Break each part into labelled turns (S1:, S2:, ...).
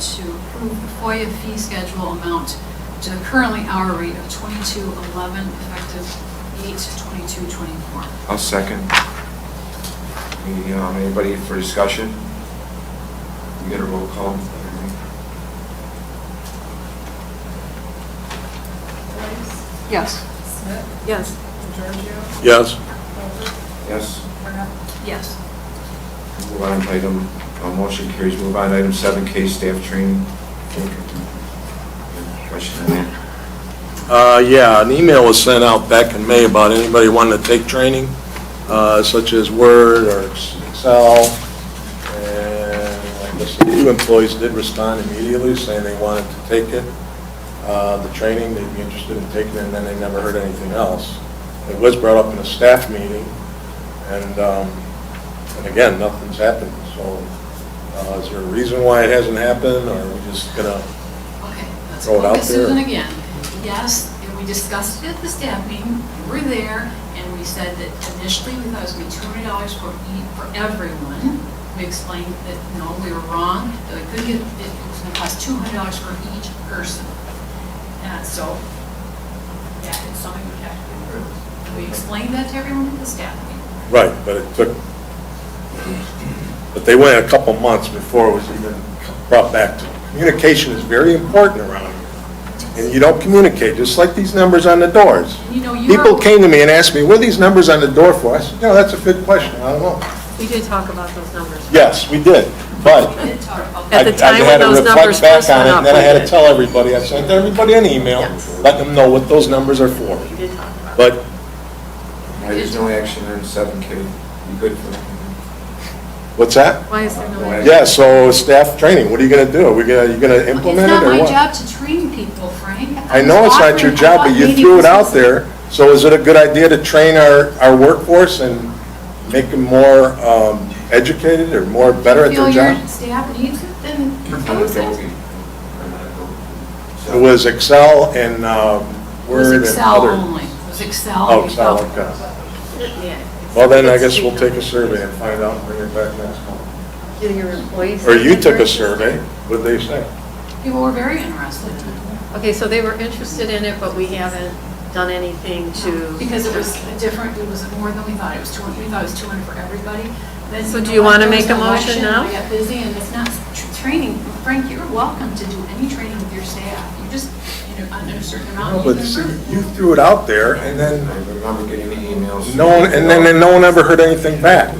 S1: to approve the FOIA fee schedule amount to the currently hour rate of twenty-two eleven, effective eight twenty-two twenty-four.
S2: I'll second. Any, um, Anybody for discussion? We get a roll call.
S3: Price,
S4: Yes.
S3: Smith,
S4: Yes.
S3: Giorgio,
S5: Yes.
S3: Felder,
S2: Yes,
S3: Burnett.
S1: Yes.
S2: move on to item, uh, motion carries, move on to item seven, K staff training. Question on that?
S5: Uh, Yeah, an email was sent out back in May about anybody wanting to take training, uh, such as Word or Excel, and I guess a few employees did respond immediately saying they wanted to take it, uh, the training, they'd be interested in taking it, and then they never heard anything else. It was brought up in a staff meeting, and, um, and again, nothing's happened, so uh, is there a reason why it hasn't happened, or are we just gonna,
S1: Okay, let's
S5: Throw it
S1: go
S5: out
S1: to Susan
S5: there.
S1: again. Yes, and we discussed it at the staff meeting, we were there, and we said that initially we thought it was gonna be two hundred dollars for each, for everyone. We explained that, no, we were wrong, that we could get, it was gonna cost two hundred dollars for each person. And so, yeah, it's something we have to improve. We explained that to everyone at the staff meeting.
S5: right, but it took But they went a couple months before it was even brought back to. Communication is very important around here, and you don't communicate, just like these numbers on the doors.
S1: And you know, you
S5: People
S1: were-
S5: came to me and asked me, what are these numbers on the door for? I said, no, that's a good question, I don't know.
S4: We did talk about those numbers.
S5: Yes, we did, but
S1: We did talk about
S5: I I
S4: At
S1: that.
S4: the time when
S5: had to
S4: those
S5: reflect
S4: numbers
S5: back
S4: first
S5: on
S4: went
S5: it,
S4: up,
S5: and then I
S4: we
S5: had to
S4: did.
S5: tell everybody, I sent everybody an email,
S4: Yes.
S5: letting them know what those numbers are for.
S4: We did talk about
S5: But
S2: Why There's no action on seven, K. You good for that?
S5: What's that?
S4: Why is there
S2: Why-
S4: no?
S5: Yeah, so staff training, what are you gonna do? Are we gonna, you gonna implement it or what?
S1: It's not my job to train people, Frank.
S5: I know it's not your job, but you threw it out there, so is it a good idea to train our, our workforce and make them more um, educated or more better at their
S1: If you feel your
S5: job?
S1: staff needs it, then propose it.
S2: It
S5: It was Excel and um,
S1: It was
S5: Word and
S1: Excel
S5: other.
S1: only, it was Excel.
S5: Oh,
S1: we
S5: Excel,
S1: felt.
S5: okay.
S4: Yeah.
S5: Well, then I guess we'll take a survey and find out and bring it back next month.
S4: Do your employees?
S5: Or you took a survey, what'd they say?
S1: People were very interested,
S4: Okay, so they were interested in it, but we haven't done anything to.
S1: because it was a different, it was more than we thought, it was 200, we thought it was 200 for everybody. Then,
S4: So do
S1: know
S4: you
S1: what,
S4: wanna
S1: there
S4: make
S1: was
S4: a
S1: an
S4: motion
S1: election,
S4: now?
S1: We got busy, and it's not tr- training, Frank, you're welcome to do any training with your staff, you just, you know, under a certain amount. you
S5: But
S1: can
S5: see,
S1: approve.
S5: you threw it out there and
S2: I
S5: then
S2: remember getting the emails.
S5: no one, and then and no one ever heard anything back.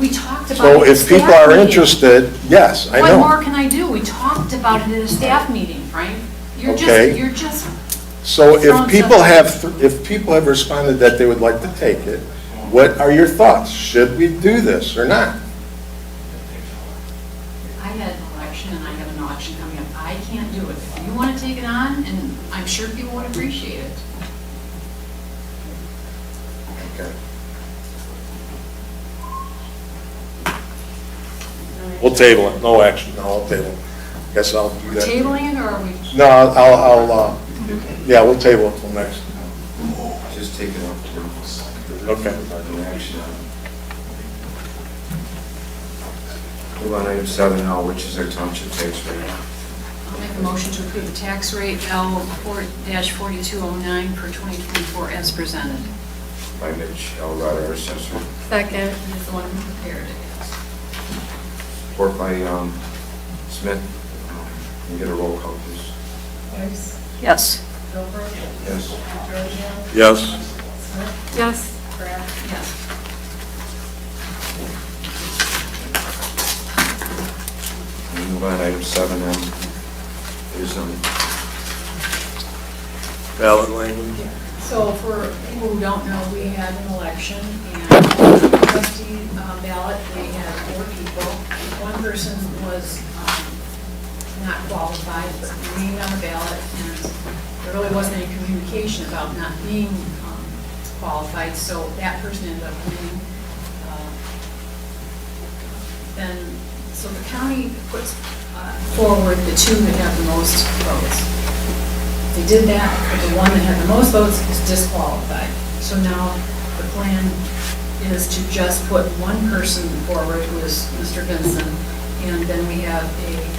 S1: We talked about.
S5: So
S1: it at
S5: if people
S1: staff
S5: are
S1: meeting.
S5: interested, yes, I know.
S1: What more can I do? We talked about it at a staff meeting, Frank. You're
S5: Okay.
S1: just, you're just
S5: So
S1: Sounds
S5: if people
S1: up.
S5: have, if people have responded that they would like to take it, what are your thoughts? Should we do this or not?
S1: I had an election and I have an election coming up. I can't do it. If you want to take it on, and I'm sure people would appreciate it.
S5: Okay. We'll table it, no action, no, I'll table it. Guess I'll do
S1: We're
S5: that.
S1: tabling it or are we?
S5: No, I'll, I'll, uh, yeah, we'll table it till next.
S2: Just take it off.
S5: Okay.
S2: No action on it. Move on to item seven now, which is our township tax rate.
S1: I'll make a motion to approve the tax rate L four forty-two oh nine for twenty twenty-four as presented.
S2: by Mitch Elrod, our assessor,
S4: Second.
S1: And it's the one who prepared it.
S2: support by um, Smith. Can we get a roll call, please?
S3: Price,
S4: Yes.
S3: Gilbert,
S2: Yes.
S3: Giorgio,
S5: Yes,
S3: Smith,
S4: Yes.
S3: Kraft.
S1: Yes.
S2: We move on to item seven, M. Is, um,
S5: ballot language.
S1: So for people who don't know, we had an election and trustee uh, ballot, we had four people. One person was um, not qualified, but remained on the ballot, and there really wasn't any communication about not being um, qualified, so that person ended up winning. Uh, Then, so the county puts uh, forward the two that have the most votes. They did that, but the one that had the most votes is disqualified. So now the plan is to just put one person forward, who is Mr. Benson, and then we have a